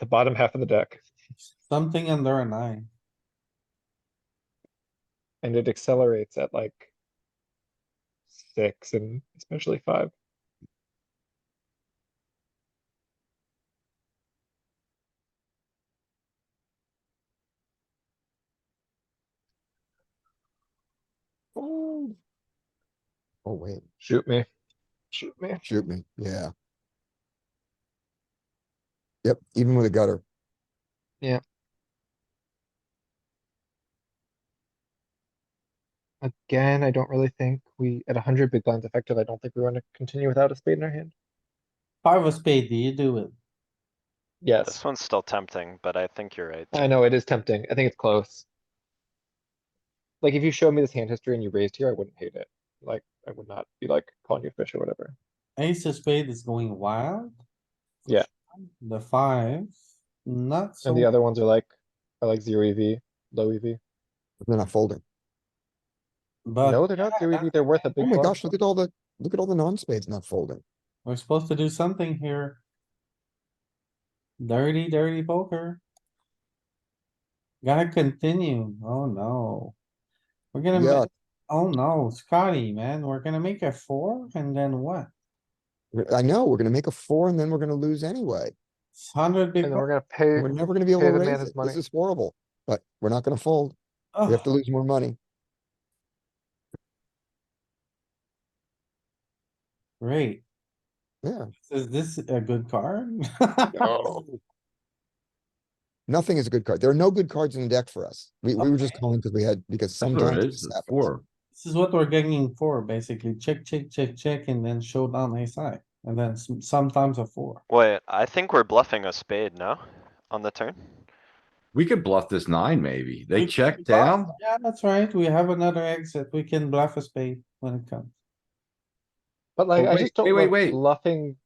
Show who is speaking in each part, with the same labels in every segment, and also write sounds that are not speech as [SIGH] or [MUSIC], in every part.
Speaker 1: the bottom half of the deck,
Speaker 2: Something under a nine.
Speaker 1: and it accelerates at like six and especially five.
Speaker 3: Oh, wait,
Speaker 1: Shoot me. Shoot me.
Speaker 3: shoot me, yeah. Yep, even with a gutter.
Speaker 1: Again, I don't really think we, at hundred big blinds effective, I don't think we want to continue without a spade in our hand.
Speaker 2: Five of spade, do you do it?
Speaker 1: Yes,
Speaker 4: This one's still tempting, but I think you're right.
Speaker 1: I know, it is tempting. I think it's close. Like, if you showed me this hand history and you raised here, I wouldn't hate it. Like, I would not be like calling you fish or whatever.
Speaker 2: Ace of spade is going wild.
Speaker 1: Yeah.
Speaker 2: The five, not so.
Speaker 1: And the other ones are like, are like zero EV, low E EV.
Speaker 3: They're not folding.
Speaker 1: No,
Speaker 2: But
Speaker 1: they're not zero EV, they're worth a
Speaker 3: Uh, Oh
Speaker 1: big.
Speaker 3: my
Speaker 1: blind.
Speaker 3: gosh, look at all the, look at all the non-spades not folding.
Speaker 2: we're supposed to do something here. Dirty, dirty poker. Gotta continue. Oh, no. We're gonna,
Speaker 3: Yeah,
Speaker 2: ma- oh no, Scotty, man, we're gonna make a four and then what?
Speaker 3: I know, we're gonna make a four and then we're gonna lose anyway.
Speaker 2: It's Hundred
Speaker 1: And
Speaker 2: big.
Speaker 1: then
Speaker 2: blind.
Speaker 1: we're gonna pay, [LAUGHS]
Speaker 3: We're never gonna be able
Speaker 1: pay
Speaker 3: to
Speaker 1: the man
Speaker 3: raise
Speaker 1: his
Speaker 3: it.
Speaker 1: money.
Speaker 3: This is horrible, but we're not gonna fold. We have to
Speaker 2: Ugh,
Speaker 3: lose more money.
Speaker 2: Great.
Speaker 3: Yeah,
Speaker 2: Is this a good card? [LAUGHS]
Speaker 1: Oh.
Speaker 3: nothing is a good card. There are no good cards in the deck for us. We, we were just calling because we had, because sometimes.
Speaker 5: Alright,
Speaker 3: this
Speaker 5: it's
Speaker 3: happens.
Speaker 5: four.
Speaker 2: This is what we're getting for, basically. Check, check, check, check, and then show down a side, and then some- sometimes a four.
Speaker 4: Wait, I think we're bluffing a spade, no? On the turn?
Speaker 5: We could bluff this nine, maybe. They
Speaker 2: We-
Speaker 5: check
Speaker 2: we bluff.
Speaker 5: down.
Speaker 2: Yeah, that's right. We have another exit. We can bluff a spade when it comes.
Speaker 1: but like,
Speaker 5: Oh,
Speaker 1: I
Speaker 5: wait,
Speaker 1: just don't
Speaker 5: wait, wait,
Speaker 1: love
Speaker 5: wait.
Speaker 1: bluffing.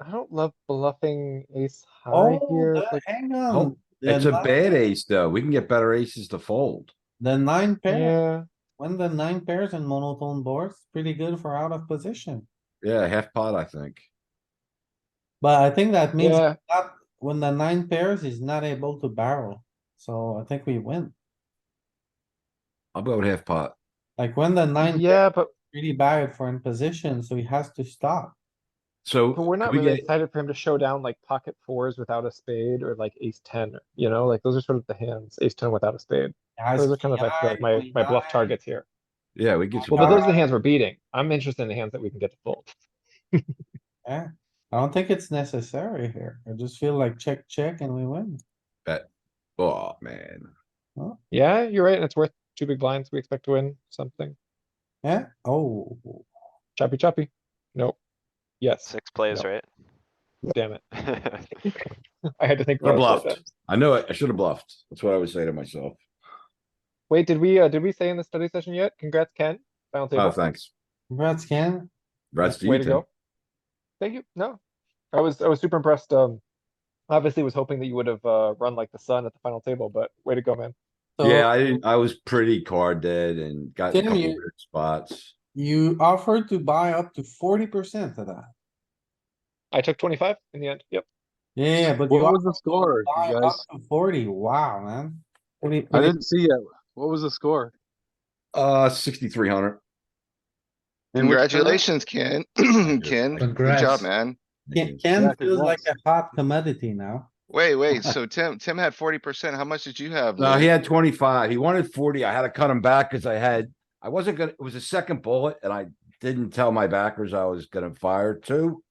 Speaker 1: I don't love bluffing ace high
Speaker 2: Oh,
Speaker 1: here.
Speaker 2: the-
Speaker 1: like,
Speaker 2: hang
Speaker 5: Oh,
Speaker 2: on. The
Speaker 5: It's a
Speaker 2: nine-
Speaker 5: bad ace, though. We can get better aces to fold.
Speaker 2: The nine pair,
Speaker 1: Yeah,
Speaker 2: when the nine pairs and monotone boards, pretty good for out of position.
Speaker 5: Yeah, half pot, I think.
Speaker 2: But I think that means
Speaker 1: yeah,
Speaker 2: that when the nine pairs, he's not able to barrel. So I think we win.
Speaker 5: I'll go with half pot.
Speaker 2: Like when the nine pair
Speaker 1: yeah, but,
Speaker 2: really bad for in position, so he has to stop.
Speaker 5: So.
Speaker 1: but we're not
Speaker 5: we
Speaker 1: really
Speaker 5: get-
Speaker 1: excited for him to show down like pocket fours without a spade or like ace ten, you know, like those are sort of the hands, ace ten without a spade.
Speaker 2: Guys,
Speaker 1: Those are kind of I feel like my, my bluff targets here.
Speaker 5: Yeah, we get some.
Speaker 1: Well, but those are
Speaker 5: power.
Speaker 1: the hands we're beating. I'm interested in the hands that we can get to fold.
Speaker 2: Yeah, I don't think it's necessary here. I just feel like check, check and we win.
Speaker 5: Oh, man.
Speaker 1: Yeah, you're right, and it's worth two big blinds. We expect to win something.
Speaker 2: Yeah, oh,
Speaker 1: Choppy choppy. Nope. Yes,
Speaker 4: Six plays,
Speaker 1: No.
Speaker 4: right?
Speaker 1: damn it. [LAUGHS]
Speaker 4: [LAUGHS]
Speaker 1: I had to think.
Speaker 5: What
Speaker 1: about it for
Speaker 5: a
Speaker 1: a
Speaker 5: bluff.
Speaker 1: second.
Speaker 5: I know it. I should have bluffed. That's what I would say to myself.
Speaker 1: Wait, did we, uh, did we say in the study session yet? Congrats, Ken. Final
Speaker 5: Oh,
Speaker 1: table.
Speaker 5: thanks.
Speaker 2: congrats, Ken.
Speaker 5: Rest to
Speaker 1: Way
Speaker 5: you
Speaker 1: to
Speaker 5: two.
Speaker 1: go. Thank you. No, I was, I was super impressed. Um, obviously was hoping that you would have, uh, run like the sun at the final table, but way to go, man.
Speaker 2: So
Speaker 5: Yeah, I didn't, I was pretty card dead and got in a
Speaker 2: Damn
Speaker 5: couple
Speaker 2: you.
Speaker 5: weird spots.
Speaker 2: You offered to buy up to forty percent of that.
Speaker 1: I took twenty-five in the end. Yep.
Speaker 2: Yeah, but you
Speaker 6: What was
Speaker 2: offered
Speaker 6: the score,
Speaker 2: to buy
Speaker 6: you
Speaker 2: up
Speaker 6: guys?
Speaker 2: to forty, wow, man. What do you-
Speaker 6: I didn't see it. What was the score?
Speaker 5: Uh, sixty-three hundred.
Speaker 7: Congratulations, Ken. [CLEARS THROAT] Ken, good job, man.
Speaker 2: Ken- Ken
Speaker 6: Yeah,
Speaker 2: feels like
Speaker 6: congrats.
Speaker 2: a hot commodity now.
Speaker 7: Wait, wait, so Tim, Tim had forty percent. How much did you have?
Speaker 5: No,
Speaker 7: Louis?
Speaker 5: Uh, he had twenty-five. He wanted forty. I had to cut him back because I had, I wasn't gonna, it was a second bullet and I didn't tell my backers I was gonna fire two.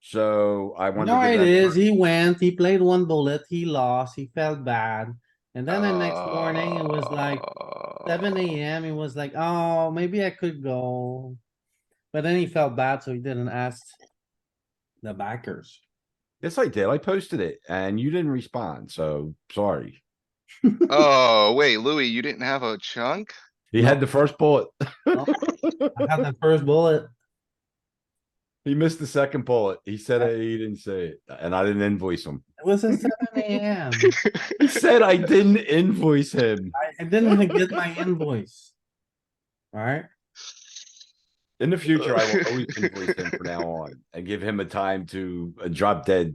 Speaker 5: So I wanted. to
Speaker 2: No,
Speaker 5: give
Speaker 2: it
Speaker 5: that
Speaker 2: is.
Speaker 5: card.
Speaker 2: He went, he played one bullet, he lost, he felt bad. And then the next morning, it was like
Speaker 7: Oh.
Speaker 2: seven AM, he was like, oh, maybe I could go. But then he felt bad, so he didn't ask the backers.
Speaker 5: Yes, I did. I posted it and you didn't respond, so sorry.
Speaker 7: Oh, wait, Louis, you didn't have a
Speaker 2: [LAUGHS]
Speaker 7: chunk?
Speaker 5: He had the first bullet. [LAUGHS]
Speaker 2: No. I had the first bullet.
Speaker 5: He missed the second bullet. He said it, he didn't say it, and I didn't invoice him.
Speaker 2: It was at seven AM. [LAUGHS]
Speaker 5: He said I didn't invoice him.
Speaker 2: I- I didn't even get my invoice. Alright, [LAUGHS]
Speaker 5: In the future, I will always invoice him from now on and give him a time to uh, drop dead